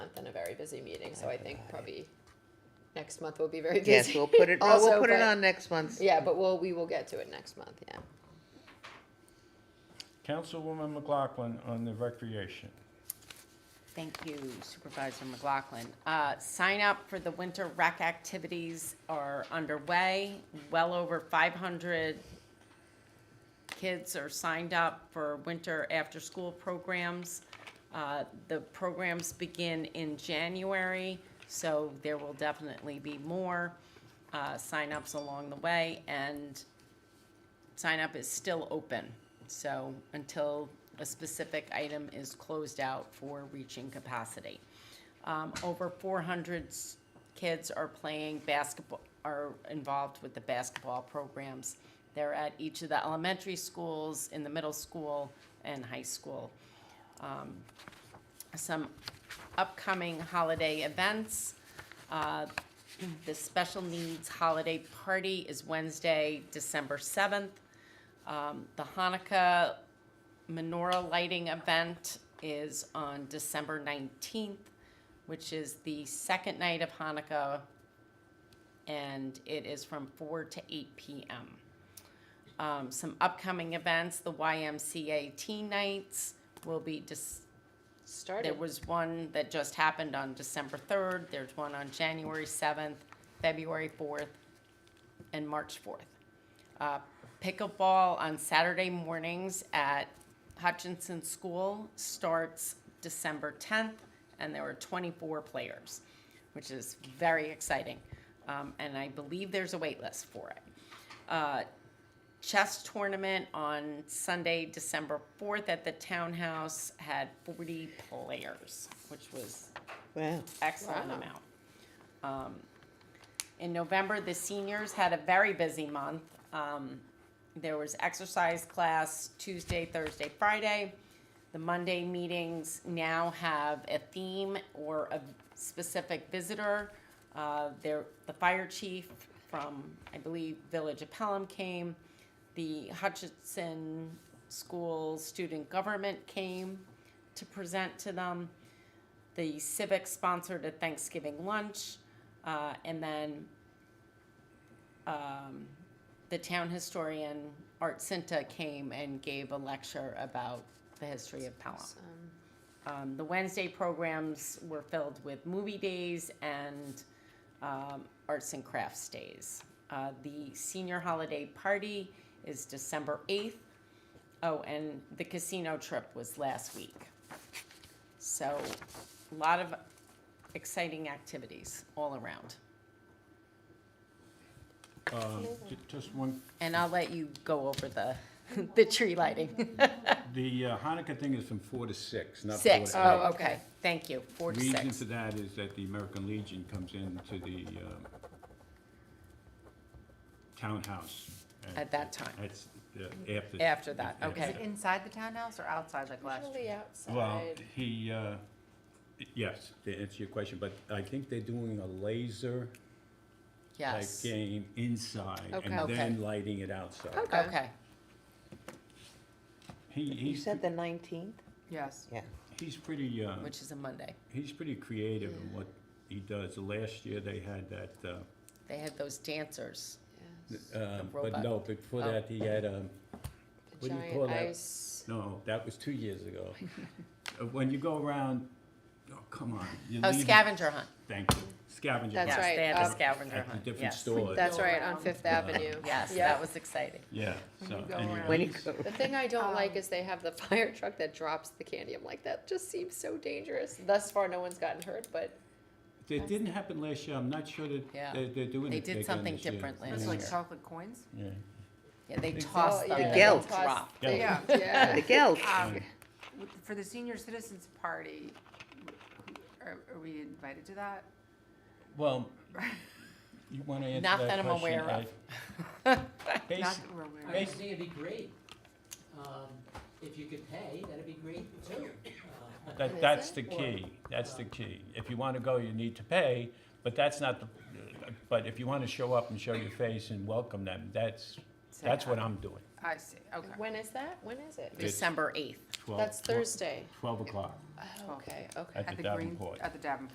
a very busy meeting, so I think probably next month will be very busy. Yes, we'll put it, oh, also, we'll put it but- on next month's. Yeah, but we'll, we will get to it next month, yeah. Councilwoman McLaughlin on the recreation. Thank you Supervisor McLaughlin. Uh, Sign up for the winter rec activities are underway. Well over 500 kids are signed up for winter after-school programs. Uh, The programs begin in January, so there will definitely be more uh, signups along the way. And sign up is still open. So until a specific item is closed out for reaching capacity. Um, over four hundred kids are playing basketball, are involved with the basketball programs. They're at each of the elementary schools, in the middle school, and high school Um, some upcoming holiday events. Uh, The Special Needs Holiday Party is Wednesday, December 7th. Um, The Hanukkah menorah lighting event is on December 19th, which is the second night of Hanukkah, and it is from 4 to 8 p.m. Um, Some upcoming events, the YMCA Teen Nights will be dis- Started. there was one that just happened on December third, there's one on January seventh, February fourth, and March fourth. Uh, pickleball on Saturday mornings at Hutchinson School starts December tenth, and there are twenty-four players, which is very exciting. Um, and I believe there's a wait list for it. Uh, chess tournament on Sunday, December 4th at the townhouse had 40 players, which was Wow. excellent Wow. amount. Um, in November, the seniors had a very busy month. Um, there was exercise class Tuesday, Thursday, Friday. The Monday meetings now have a theme or a specific visitor. Uh, there, the fire chief from, I believe, Village of Pelham came. The Hutchinson School Student Government came to present to them the Civic sponsored a Thanksgiving lunch, uh, and then um, the town historian Art Cinta came and gave a lecture about the history of Pelham. Um, the Wednesday programs were filled with movie days and um, arts and crafts days. Uh, the senior holiday party is December 8th. Oh, and the casino trip was last week. So, a lot of exciting activities all around. Um, ju- Just one, And I'll let you go over the, the tree lighting. the uh, Hanukkah thing is from four to six, not four to eight. Six, oh, eight. okay, thank you, four to Reason six. for that is that the American Legion comes into the um, townhouse. At that time. That's, uh, after. After that, after okay. Is it inside the townhouse or outside like last year? Usually Well, outside. he, uh, yes, to answer your question, but I think they're doing a laser type Yes, game inside and Okay. Oh. then lighting it outside. okay, He, You he's, said the nineteenth? Yes. Yeah. he's pretty, uh, which is a Monday. he's pretty creative in what he does. Last year, they had that, uh, They had those dancers, Yes. um, but robot. no, before Oh. that, he had, um, The what do you giant call that? ice- no, that was two years ago. Uh, When you go around, oh, come on. you oh, leave- scavenger hunt. Thank you, scavenger. That's Yes, hunt right, They had um, a scavenger At the hunt, different yes. stores. That's go right, on around. Fifth Avenue. Yes, Yeah. that was exciting. Yeah, so. you go anyway, around. When you he's- go, The thing I don't like Um, is they have the fire truck that drops the candy. I'm like, that just seems so dangerous. Thus far, no one's gotten hurt, but It didn't happen last year, I'm not sure that Yeah. they're, they're doing They it did again something this year. different Yeah. last It's year. like chocolate coins? Yeah. Yeah, they Exactly. tossed Oh, them yeah, and they Gelt. toss- dropped. they- Yeah. yeah. the Geld, Um, Yeah. w- For the senior citizens party, are, are we invited to that? Well, you wanna answer that Not question? that I'm aware I- of. Not Basi- that we're aware of. I just think it'd be great, um, if you could pay, that'd be great too. Uh, Is That, that's it? the key, that's the key. If you wanna go, you need to pay, but that's not the, but if you wanna show up and show your face and welcome them, that's, Say that's what hi. I'm doing. I see, okay. When is that? When is it? It's December eighth. Twelve- That's twelve- Thursday. Twelve o'clock Oh, Okay, okay. at At the the green, Davenport. at the Davenport.